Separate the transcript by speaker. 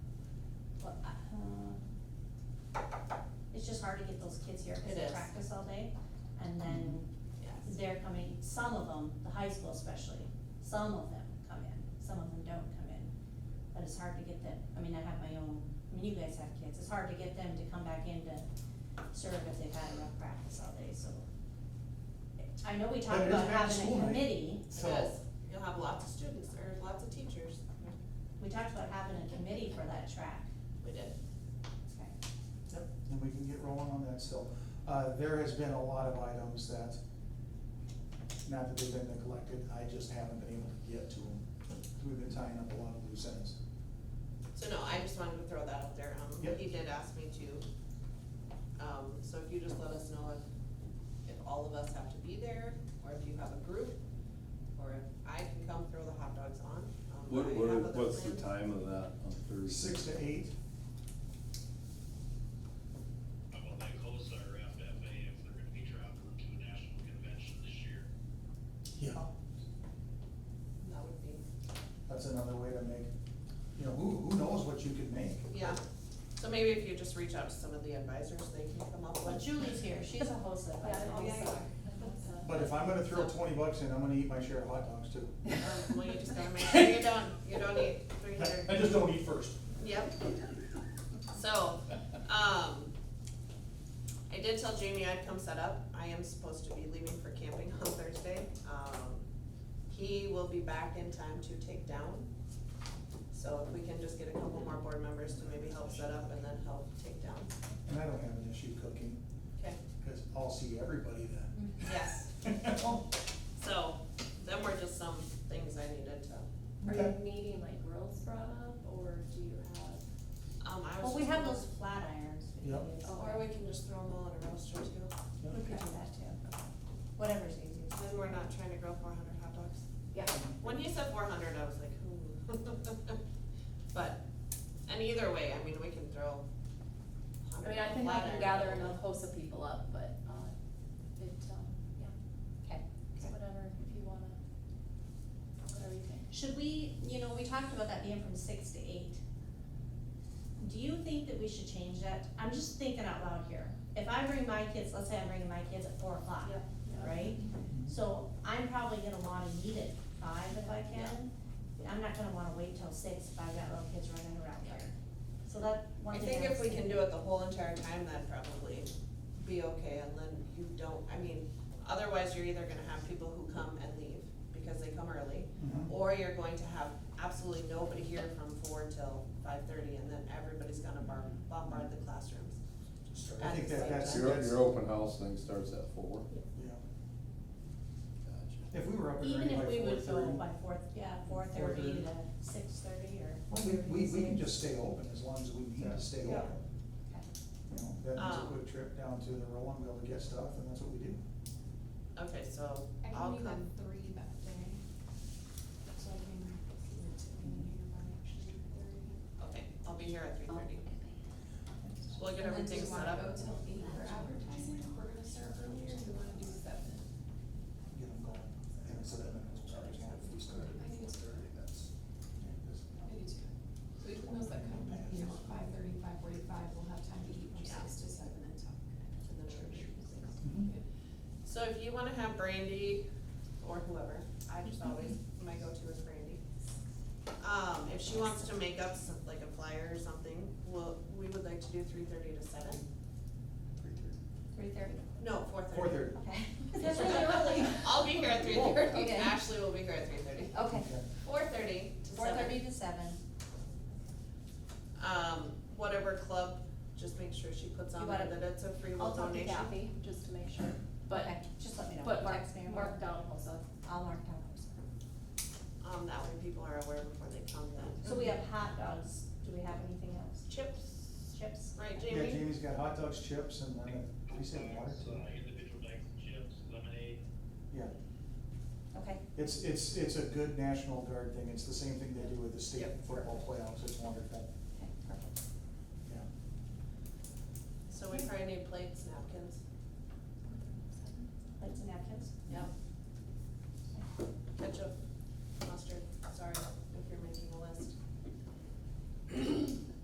Speaker 1: uh, just hard to get those kids here because
Speaker 2: It
Speaker 1: they
Speaker 2: is.
Speaker 1: practice all day. And then
Speaker 2: Yes.
Speaker 1: they're coming, some of them, the high school especially, some of them come in, some of them don't come in. But it's hard to get them, I mean, I have my own, I mean, you guys have kids, it's hard to get them to come back in to serve if they've had a rough practice all day, so. I know we talked
Speaker 3: But it is
Speaker 1: about
Speaker 3: back to
Speaker 1: having a
Speaker 3: school night.
Speaker 1: committee,
Speaker 2: So
Speaker 3: So-
Speaker 2: you'll have lots of students or lots of teachers.
Speaker 1: we talked about having a committee for that track.
Speaker 2: We did.
Speaker 3: Yep, and we can get rolling on that still. Uh, there has been a lot of items that, not that they've been neglected, I just haven't been able to get to them. We've been tying up a lot of loose ends.
Speaker 2: So no, I just wanted to throw that out there. Um,
Speaker 3: Yep.
Speaker 2: he did ask me to. Um, so if you just let us know if, if all of us have to be there, or if you have a group, or if I can come throw the hot dogs on. Um,
Speaker 4: What,
Speaker 2: I
Speaker 4: what,
Speaker 2: have other
Speaker 4: what's the
Speaker 2: plans.
Speaker 4: time of that on Thursday?
Speaker 3: Six to eight,
Speaker 5: Well, my COSA or FFA, if they're gonna be traveling to a national convention this year.
Speaker 3: yeah,
Speaker 2: That would be,
Speaker 3: that's another way to make, you know, who, who knows what you could make?
Speaker 2: yeah. So maybe if you just reach out to some of the advisors, they can come up
Speaker 1: Well,
Speaker 2: with.
Speaker 1: Julie's here, she's a HOSA,
Speaker 6: Yeah,
Speaker 1: that's
Speaker 2: oh,
Speaker 6: yeah, yeah.
Speaker 3: But if I'm gonna throw twenty bucks in, I'm gonna eat my share of hot dogs too.
Speaker 2: Um, well, you just gotta make sure you don't, you don't eat three hundred.
Speaker 3: I just don't eat first.
Speaker 2: Yep. So, um, I did tell Jamie I'd come set up. I am supposed to be leaving for camping on Thursday. Um, he will be back in time to take down. So if we can just get a couple more board members to maybe help set up and then help take down.
Speaker 3: And I don't have an issue cooking,
Speaker 2: Okay.
Speaker 3: cause I'll see everybody then.
Speaker 2: Yes, so then were just some things I needed to,
Speaker 6: Are
Speaker 3: Okay.
Speaker 6: you needing like girls brought up, or do you have,
Speaker 2: um, I was.
Speaker 1: Well, we
Speaker 2: just-
Speaker 1: have those flat irons. we can
Speaker 3: Yep.
Speaker 1: use.
Speaker 2: Or we can just throw them all in a roaster too.
Speaker 3: Yeah.
Speaker 1: We could do that too, whatever's easiest.
Speaker 2: Then we're not trying to grow four hundred hot dogs.
Speaker 6: yeah,
Speaker 2: When he said four hundred, I was like, ooh. But, and either way, I mean, we can throw.
Speaker 6: I mean, I think I can gather enough host of people up, but, uh, it, um, yeah,
Speaker 1: Okay.
Speaker 6: it's whatever, if you wanna, whatever you think.
Speaker 1: Should we, you know, we talked about that being from six to eight. Do you think that we should change that? I'm just thinking out loud here. If I bring my kids, let's say I'm bringing my kids at four o'clock,
Speaker 2: Yep.
Speaker 1: right?
Speaker 3: Mm-hmm.
Speaker 1: So I'm probably gonna wanna eat at five if I can. I'm not gonna wanna wait till six if I've got little kids running around
Speaker 2: Yeah.
Speaker 1: here. So that, one
Speaker 2: I
Speaker 1: thing.
Speaker 2: think
Speaker 1: I
Speaker 2: if
Speaker 1: was
Speaker 2: we can
Speaker 1: thinking-
Speaker 2: do it the whole entire time, that'd probably be okay, and then you don't, I mean, otherwise, you're either gonna have people who come and leave because they come early,
Speaker 3: Mhm.
Speaker 2: or you're going to have absolutely nobody here from four till five thirty, and then everybody's gonna bar- bombard the classrooms.
Speaker 3: I think that, that's,
Speaker 4: Your,
Speaker 3: that's,
Speaker 4: your open house thing starts at four?
Speaker 3: yeah.
Speaker 4: Gotcha.
Speaker 3: If we were up and
Speaker 1: Even
Speaker 3: ready by
Speaker 1: if we
Speaker 3: four
Speaker 1: would go
Speaker 3: thirty,
Speaker 1: by four, yeah, four thirty
Speaker 3: 4:30.
Speaker 1: to six thirty or.
Speaker 3: we,
Speaker 1: whatever
Speaker 3: we,
Speaker 1: you
Speaker 3: we can
Speaker 1: say.
Speaker 3: just stay open as long as we need to stay
Speaker 2: Yeah.
Speaker 3: open.
Speaker 1: Okay.
Speaker 3: You know, that means a
Speaker 2: Um.
Speaker 3: quick trip down to the Rowan Mill to get stuff, and that's what we do.
Speaker 2: Okay, so
Speaker 7: I
Speaker 2: I'll
Speaker 7: can do the
Speaker 2: come.
Speaker 7: three that day. So I can see what's in here by actually three.
Speaker 2: Okay, I'll be here at three thirty. We'll get everything set
Speaker 7: And then
Speaker 2: up.
Speaker 7: do you wanna go till eight for advertising, if we're gonna start earlier, do we wanna do seven?
Speaker 3: Get them going. And so that means we're always gonna have to start
Speaker 7: I
Speaker 3: at
Speaker 7: think it's
Speaker 3: 4:30, that's-
Speaker 7: I do too. So even those that come, you know, five thirty, five forty-five, we'll have time to eat from
Speaker 2: Yeah.
Speaker 7: six to seven and talk. Mm-hmm.
Speaker 2: And then we're sure.
Speaker 3: Mhm.
Speaker 2: So if you wanna have Brandy or whoever, I just always, my go-to is Brandy. Um, if she wants to make up some, like a flyer or something, well, we would like to do three thirty to seven.
Speaker 1: Three thirty.
Speaker 2: No, four thirty.
Speaker 3: 4:30.
Speaker 1: Okay. That's really early.
Speaker 2: I'll be here at three
Speaker 3: Whoa.
Speaker 2: thirty.
Speaker 1: Okay.
Speaker 2: Ashley will be here at three thirty.
Speaker 1: Okay.
Speaker 3: Okay.
Speaker 2: Four thirty to
Speaker 1: Four
Speaker 2: seven.
Speaker 1: thirty to seven.
Speaker 2: Um, whatever club, just make sure she puts
Speaker 1: You
Speaker 2: on
Speaker 1: wanna-
Speaker 2: there that it's a free will
Speaker 1: I'll talk to
Speaker 2: donation.
Speaker 1: Kathy.
Speaker 6: Just to make sure, but,
Speaker 1: Okay, Just let me know.
Speaker 6: but mark,
Speaker 1: Text me or
Speaker 6: mark down host of,
Speaker 1: I'll mark down. those.
Speaker 2: Um, that way people are aware before they come then.
Speaker 1: So we have hot dogs. Do we have anything else?
Speaker 2: Chips,
Speaker 1: Chips?
Speaker 2: right,
Speaker 3: Yeah,
Speaker 2: Jamie?
Speaker 3: Jamie's got hot dogs, chips, and then, uh, we said water
Speaker 5: Dogs,
Speaker 3: too.
Speaker 5: uh, Individual bags of chips, lemonade.
Speaker 3: Yeah,
Speaker 1: Okay.
Speaker 3: it's, it's, it's a good National Guard thing, it's the same thing they do with the state
Speaker 2: Yep.
Speaker 3: football playoffs, it's wonderful.